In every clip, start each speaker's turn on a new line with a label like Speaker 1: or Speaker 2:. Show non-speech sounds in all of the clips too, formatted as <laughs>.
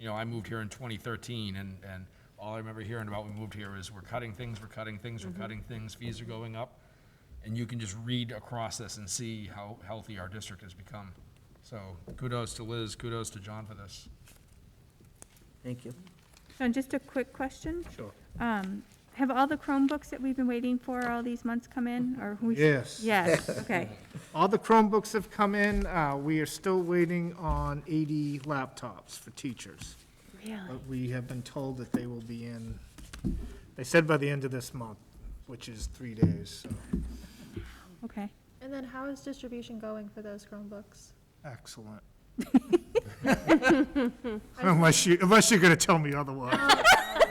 Speaker 1: you know, I moved here in 2013, and, and all I remember hearing about when we moved here is we're cutting things, we're cutting things, we're cutting things, fees are going up. And you can just read across this and see how healthy our district has become. So kudos to Liz, kudos to John for this.
Speaker 2: Thank you.
Speaker 3: John, just a quick question.
Speaker 4: Sure.
Speaker 3: Um, Have all the Chromebooks that we've been waiting for all these months come in, or who's?
Speaker 4: Yes. <laughs>
Speaker 3: Yes, okay.
Speaker 4: All the Chromebooks have come in. Uh, We are still waiting on 80 laptops for teachers.
Speaker 3: Really?
Speaker 4: But we have been told that they will be in, they said by the end of this month, which is three days. so
Speaker 3: Okay.
Speaker 5: And then how is distribution going for those Chromebooks?
Speaker 4: Excellent. <laughs> Unless you, unless you're going to tell me otherwise.
Speaker 5: I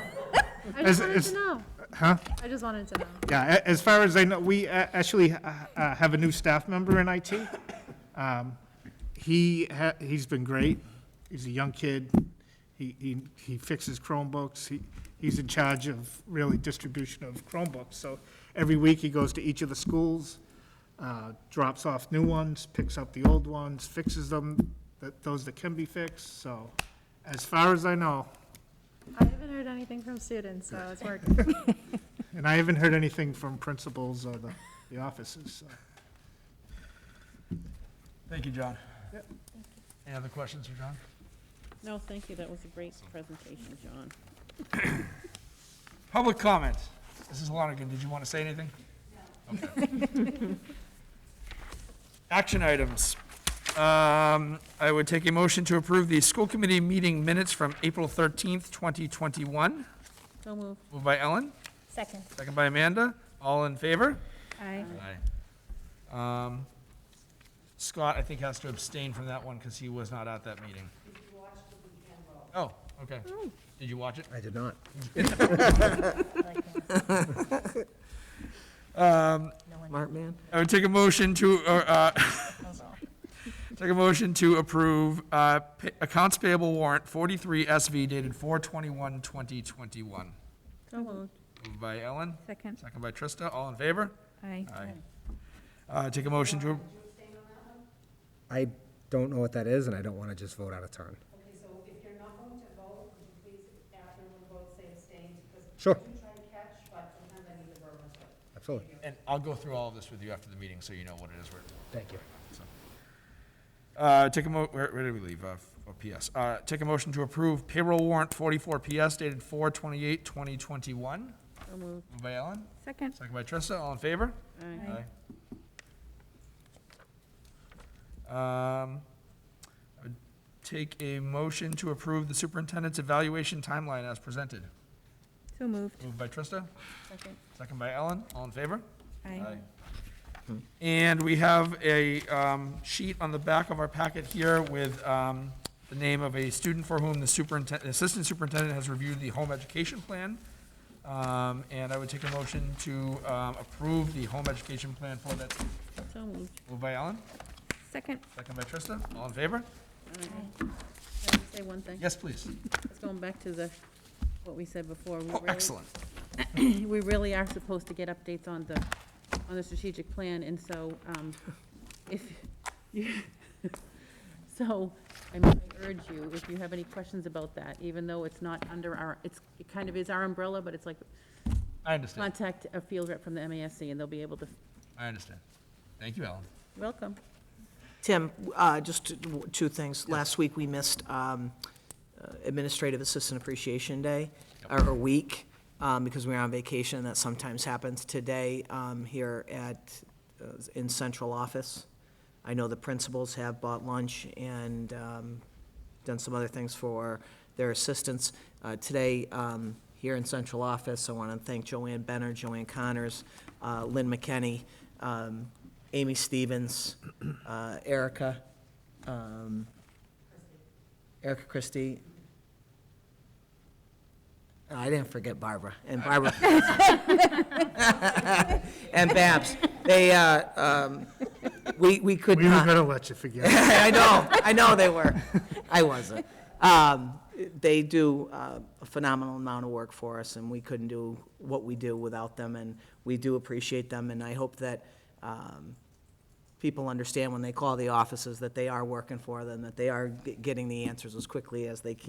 Speaker 5: just
Speaker 4: As-
Speaker 5: wanted
Speaker 4: as-
Speaker 5: to know.
Speaker 4: Huh?
Speaker 5: I just wanted to know.
Speaker 4: Yeah, a- as far as I know, we uh, actually uh, uh, have a new staff member in IT. Um, He, ha- he's been great. He's a young kid. He, he he fixes Chromebooks. He, he's in charge of really distribution of Chromebooks. So every week, he goes to each of the schools, uh, drops off new ones, picks up the old ones, fixes them, that- those that can be fixed. So as far as I know,
Speaker 5: I haven't heard anything from students, so it's working.
Speaker 4: and I haven't heard anything from principals or the the offices, so.
Speaker 1: Thank you, John. Any other questions for John?
Speaker 6: No, thank you. That was a great presentation, John.
Speaker 1: Public comment. Mrs. Lonergan, did you want to say anything? Okay. Action items. Um, I would take a motion to approve the school committee meeting minutes from April 13th, 2021.
Speaker 6: So moved.
Speaker 1: Moved by Ellen,
Speaker 5: Second.
Speaker 1: second by Amanda. All in favor?
Speaker 3: I
Speaker 1: Aye. Um, Scott, I think, has to abstain from that one because he was not at that meeting. Oh, okay. Did you watch it?
Speaker 2: I did not. Mark man?
Speaker 1: I would Uh, take a motion to, uh, uh, <laughs> take a motion to approve uh, pa- accounts payable warrant 43 SV dated 4/21/2021. Moved
Speaker 6: So moved.
Speaker 1: by Ellen,
Speaker 3: Second.
Speaker 1: second by Trista, all in favor?
Speaker 3: Aye.
Speaker 1: Aye. Uh, Take a motion to,
Speaker 2: I don't know what that is, and I don't want to just vote out of turn.
Speaker 7: Okay, so if you're not going to vote, would you please, after we vote, say abstained? Because
Speaker 2: Sure.
Speaker 7: I do try to catch, but sometimes I need the verbal stuff.
Speaker 2: Absolutely.
Speaker 1: and I'll go through all of this with you after the meeting, so you know what it is. we're-
Speaker 2: Thank you.
Speaker 1: Uh, Take a mo, where where did we leave? Uh, f- oh, PS. Uh, Take a motion to approve payroll warrant 44 PS dated 4/28/2021.
Speaker 6: So moved.
Speaker 1: Moved by Ellen,
Speaker 3: Second.
Speaker 1: second by Trista, all in favor?
Speaker 6: Aye.
Speaker 1: Aye. Um, I would Take a motion to approve the superintendent's evaluation timeline as presented.
Speaker 3: So moved.
Speaker 1: Moved by Trista,
Speaker 6: Second.
Speaker 1: second by Ellen, all in favor?
Speaker 3: Aye.
Speaker 1: And we have a um, sheet on the back of our packet here with um, the name of a student for whom the superintendent, assistant superintendent has reviewed the home education plan. Um, And I would take a motion to um, approve the home education plan for that. student.
Speaker 6: So moved.
Speaker 1: Moved by Ellen?
Speaker 3: Second.
Speaker 1: Second by Trista, all in favor?
Speaker 6: Aye. Can I just say one thing?
Speaker 1: Yes, please.
Speaker 6: Just going back to the, what we said before. we
Speaker 1: Oh,
Speaker 6: really-
Speaker 1: excellent.
Speaker 6: We really are supposed to get updates on the, on the strategic plan, and so, um, if, you <laughs> so, I mean, I urge you, if you have any questions about that, even though it's not under our, it's, it kind of is our umbrella, but it's like,
Speaker 1: I understand,
Speaker 6: contact a field rep from the MASC, and they'll be able to,
Speaker 1: I understand. Thank you, Ellen.
Speaker 6: welcome.
Speaker 8: Tim, uh, just two- two things. Last week, we missed um, uh, Administrative Assistant Appreciation Day, or or week, um, because we were on vacation. That sometimes happens today um, here at, uh, in central office. I know the principals have bought lunch and um, done some other things for their assistants. Uh, Today, um, here in central office, I want to thank Joanne Benner, Joanne Connors, uh, Lynn McKenney, um, Amy Stevens, <clears throat> uh, Erica, um, Erica Christie. Oh, I didn't forget Barbara, and Barbara. <laughs> And Babs. They, uh, um, we we could
Speaker 4: We were
Speaker 8: not.
Speaker 4: gonna let you forget.
Speaker 8: <laughs> I know, I know they were. I wasn't. Um, They do uh, a phenomenal amount of work for us, and we couldn't do what we do without them, and we do appreciate them, and I hope that um, people understand when they call the offices that they are working for them, that they are g- getting the answers as quickly as they can.